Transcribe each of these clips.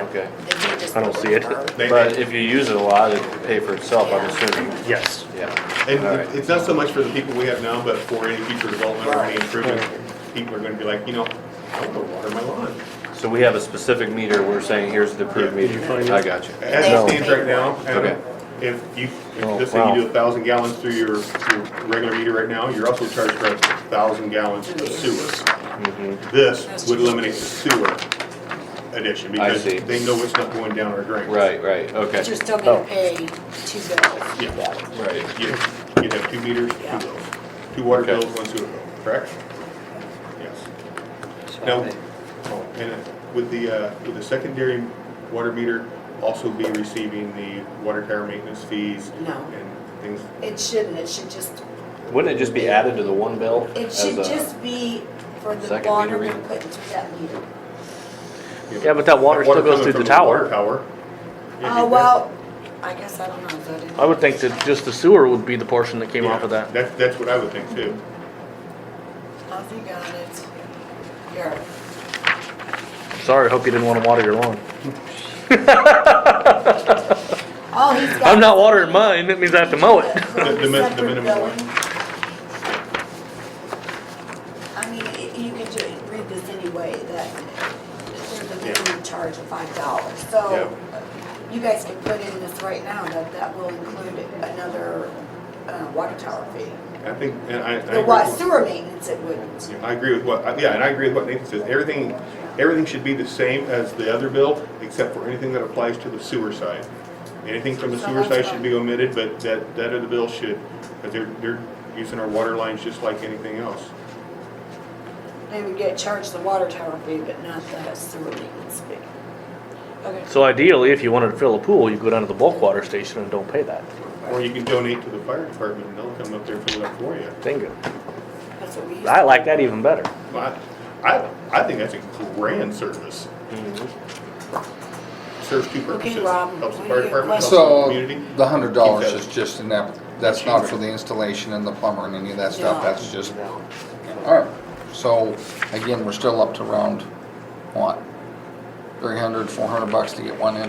Okay. It would just I don't be see it. confirmed. They- But if you use it a lot, it would pay for itself, I'm assuming. Yes. Yeah. And All it- right. it's not so much for the people we have now, but for any future development or any Right. improvement, people are gonna be like, you know, I don't wanna water my lawn. So we have a specific meter, we're saying here's the approved Yeah, meter. find it? I got you. As No. it stands right now, Okay. Adam, if you, if Oh, let's say you wow. do a thousand gallons through your, your regular meter right now, you're also charged for a thousand gallons of sewer. Mm-hmm. This would eliminate the sewer addition, I because see. they know it's not going down our drain. Right, right, okay. But you're still gonna Oh. pay two bills. Yeah. Right. You'd, you'd have two meters, two Yeah. bills, two water Okay. bills, one sewer bill, correct? Yes. Now, oh, and uh, would the, uh, would the secondary water meter also be receiving the water tower maintenance fees? No. And things, It shouldn't, it should just, Wouldn't it just be added to the one bill? it as should a- just be for the second meter water we reading? put into that meter. you know, Yeah, but that water still goes coming through the from Water tower. tower. Yeah, Oh, you- well, I guess I don't know, though, didn't I would think that just the sewer would be the portion that came off of yeah, that. That, that's what I would think too. Oh, you got it. Here. Sorry, I hope you didn't wanna water your lawn. Oh, he's got. I'm not watering mine, that means I have to mow it. The- the min- the minimum Separate one. billing. I mean, i- you can ju- read this anyway, that there's a minimum charge of five dollars. So you guys can put in this right now, that that will include another uh, water tower fee. I think, and I. I The agree wa- with- sewer maintenance, it wouldn't. Yeah, I agree with what, yeah, and I agree with what Nathan says. Everything, everything should be the same as the other bill, except for anything that applies to the sewer side. Anything from the So sewer side that's should be omitted, but that, that other bill should, but they're, they're using our water lines just like anything else. They would get charged the water tower fee, but not the sewer maintenance fee. Okay. So ideally, if you wanted to fill a pool, you go down to the bulk water station and don't pay that. Or you can donate to the fire department and they'll come up there and fill it up for you. Bingo. That's what we used. I to- like that even better. But I, I think that's a grand service. Serves two purposes. Mm-hmm. Rob, Helps the what fire do you- department, helps the So, community. the hundred dollars Keep is that- just an app, that's not for the installation and the plumber and any of that stuff, No. that's just, alright. So, again, we're still up to round, what, three hundred, four hundred bucks to get one in?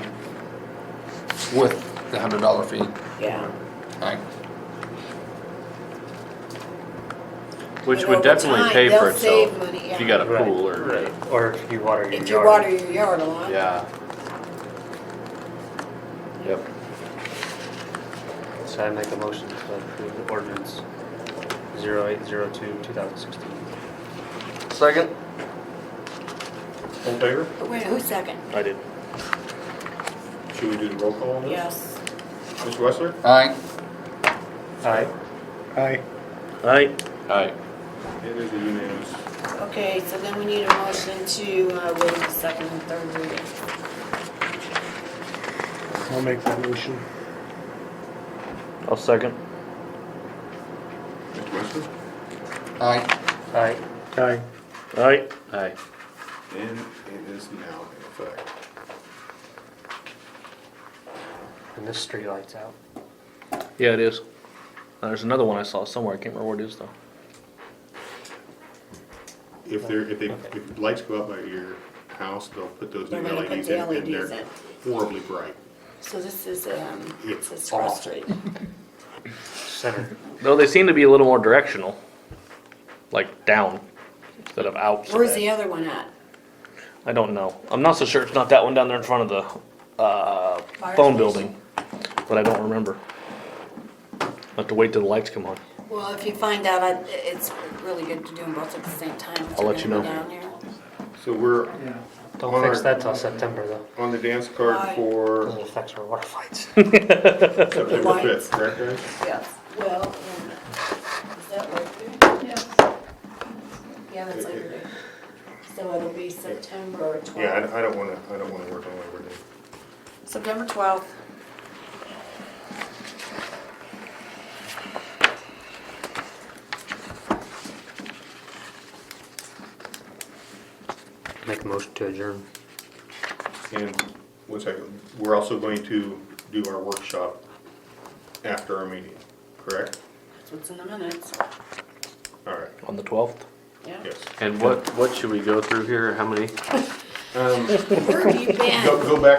With the hundred dollar fee, Yeah. alright, Which But would over definitely time, pay for they'll save itself. money, If you yeah. got a pool or, Or if you water your yard. If you water your yard a lot. yeah. Yep. So I make a motion to approve the ordinance 0802, 2016. Second? All in favor? Wait, who's second? I did. Should we do the roll call on this? Yes. Mr. Wessler? alright, Aye. Aye. Aye. Alright, It is a unanimous. Okay, so then we need a motion to uh, waive the second and third reading. I'll make that motion. I'll second. Mr. Wessler? alright. Aye. Aye. Aye. alright. And it is now in effect. And this street lights out. Yeah, it is. There's another one I saw somewhere, I can't remember where it is though. If they're, if they, if the lights go out by your house, they'll put those new They're gonna put LEDs the in, and LEDs they're in. horribly bright. So this is, um, it It's says cross street. Center. Though they seem to be a little more directional, like down instead of out. Where's the other one at? I don't know. I'm not so sure it's not that one down there in front of the uh, Fire phone station? building, but I don't remember. I'll have to wait till the lights come on. Well, if you find out, I- it's really good to do them both at the same time. if I'll you're let you gonna know. be down there. So we're Don't fix that till September though, on the dance card Aye. for because it affects our water fights. September Lights. fifth, correct, guys? Yes, well, um, is that right there? Yeah, that's It- later. it- So it'll be September Yeah, I, twelfth. don't- I don't wanna, I don't wanna work on Labor Day. September twelfth. Make a motion to adjourn. And, one second, we're also going to do our workshop after our meeting, correct? That's what's in the minutes. All right, On the 12th? Yeah. yes. And what, what should we go through here? How many? Um, Where have you been? Go, go back